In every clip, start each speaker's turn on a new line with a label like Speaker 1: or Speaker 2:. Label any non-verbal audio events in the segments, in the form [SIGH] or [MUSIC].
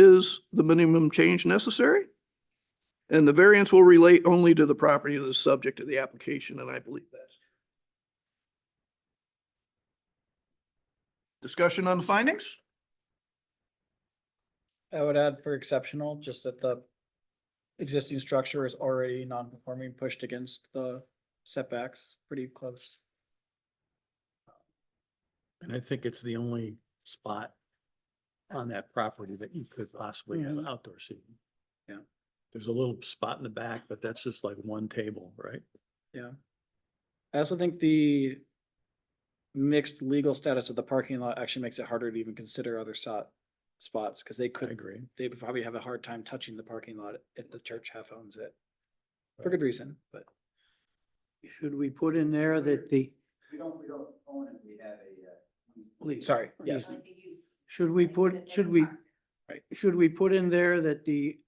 Speaker 1: is the minimum change necessary. And the variance will relate only to the property that is subject to the application, and I believe that's. Discussion on the findings?
Speaker 2: I would add for exceptional, just that the existing structure is already non-conforming, pushed against the setbacks, pretty close.
Speaker 3: And I think it's the only spot on that property that you could possibly have
Speaker 2: Mhm.
Speaker 3: outdoor seating.
Speaker 2: Yeah.
Speaker 3: There's a little spot in the back, but that's just like one table, right?
Speaker 2: I also think the mixed legal status of the parking lot actually makes it harder to even consider other sot spots, because they
Speaker 3: I
Speaker 2: could,
Speaker 3: agree.
Speaker 2: they would probably have a hard time touching the parking lot if the church half owns it. For good reason, but
Speaker 4: Should we put in there that the,
Speaker 5: We don't, we don't own it, we have a, uh.
Speaker 4: please,
Speaker 2: sorry, yes.
Speaker 6: Like the use.
Speaker 4: should we put, should we, should we put in there that the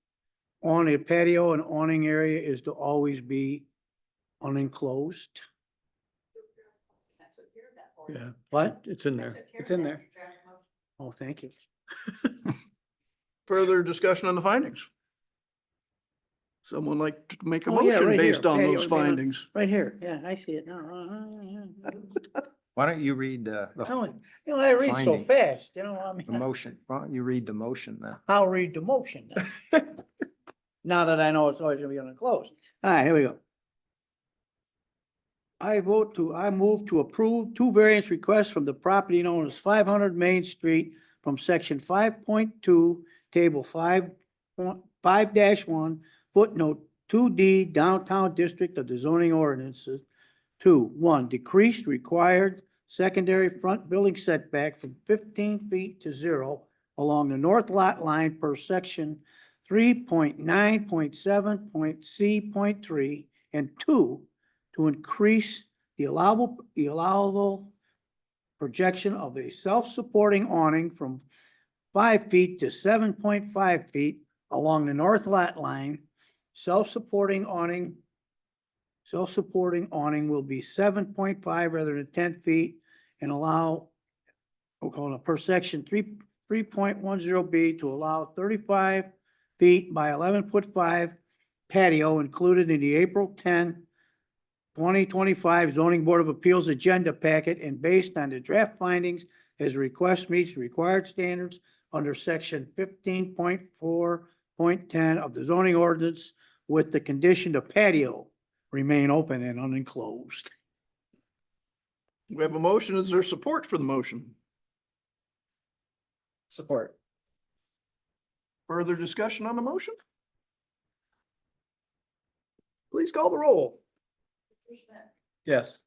Speaker 4: on a patio and awning area is to always be unenclosed?
Speaker 3: Yeah,
Speaker 4: What?
Speaker 3: it's in there.
Speaker 2: It's in there.
Speaker 4: Oh, thank you.
Speaker 1: Further discussion on the findings? Someone like to make a
Speaker 4: Oh, yeah,
Speaker 1: motion
Speaker 4: right
Speaker 1: based
Speaker 4: here. oh,
Speaker 1: on
Speaker 4: Yeah,
Speaker 1: those
Speaker 4: you're right.
Speaker 1: findings?
Speaker 4: Right here. Yeah, I see it now. [LAUGHS] Uh, uh, uh, uh.
Speaker 5: Why don't you read, uh,
Speaker 4: Oh,
Speaker 5: the,
Speaker 4: You know, I read so
Speaker 5: Finding.
Speaker 4: fast, you know, I mean.
Speaker 5: the motion, why don't you read the motion then?
Speaker 4: I'll read the motion. [LAUGHS] then. Now that I know it's always gonna be unclosed. All right, here we go. I vote to, I move to approve two variance requests from the property known as five hundred Main Street from section five point two, table five, point- five dash one, footnote two D downtown district of the zoning ordinances. Two, one, decreased required secondary front building setback from fifteen feet to zero along the north lot line per section three point nine point seven point C point three and two to increase the allowable, the allowable projection of a self-supporting awning from five feet to seven point five feet along the north lot line. Self-supporting awning, self-supporting awning will be seven point five rather than ten feet and allow, we'll call it per section three, three point one zero B to allow thirty-five feet by eleven foot five patio included in the April 10, 2025 zoning board of appeals agenda packet and based on the draft findings as request meets required standards under section fifteen point four point ten of the zoning ordinance with the condition the patio remain open and unenclosed.
Speaker 1: We have a motion. Is there support for the motion?
Speaker 2: Support.
Speaker 1: Further discussion on the motion? Please call the roll.
Speaker 2: Yes.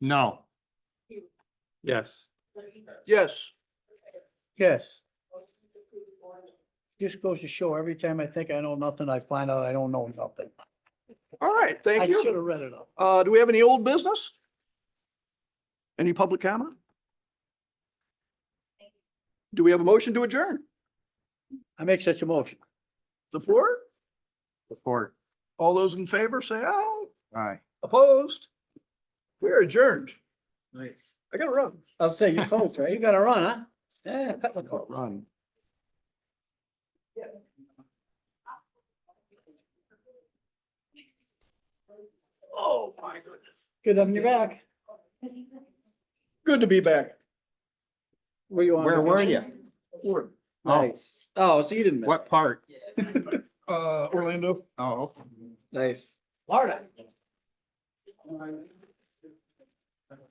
Speaker 5: No.
Speaker 3: Yes.
Speaker 1: Yes.
Speaker 4: Yes. Just goes to show, every time I think I know nothing, I find out I don't know nothing.
Speaker 1: All right,
Speaker 4: I
Speaker 1: thank
Speaker 4: should have
Speaker 1: you.
Speaker 4: read it up.
Speaker 1: Uh, do we have any old business? Any public comment? Do we have a motion to adjourn?
Speaker 4: I make such a motion.
Speaker 1: Support?
Speaker 5: Support.
Speaker 1: All those in favor say aye.
Speaker 5: Aye.
Speaker 1: Opposed? We're adjourned.
Speaker 2: Nice.
Speaker 1: I gotta run.
Speaker 2: I'll say you're close, right?
Speaker 4: You gotta run, huh?
Speaker 2: Yeah.
Speaker 5: Run.
Speaker 6: Oh, my goodness.
Speaker 2: Good having you back. Good to be back. Were you on?
Speaker 5: Where were
Speaker 2: vacation?
Speaker 5: you? Oh.
Speaker 2: Nice. Oh, so you didn't miss.
Speaker 5: What
Speaker 2: it.
Speaker 5: part?
Speaker 1: Uh, Orlando.
Speaker 5: Oh. okay.
Speaker 2: Nice.
Speaker 4: Florida.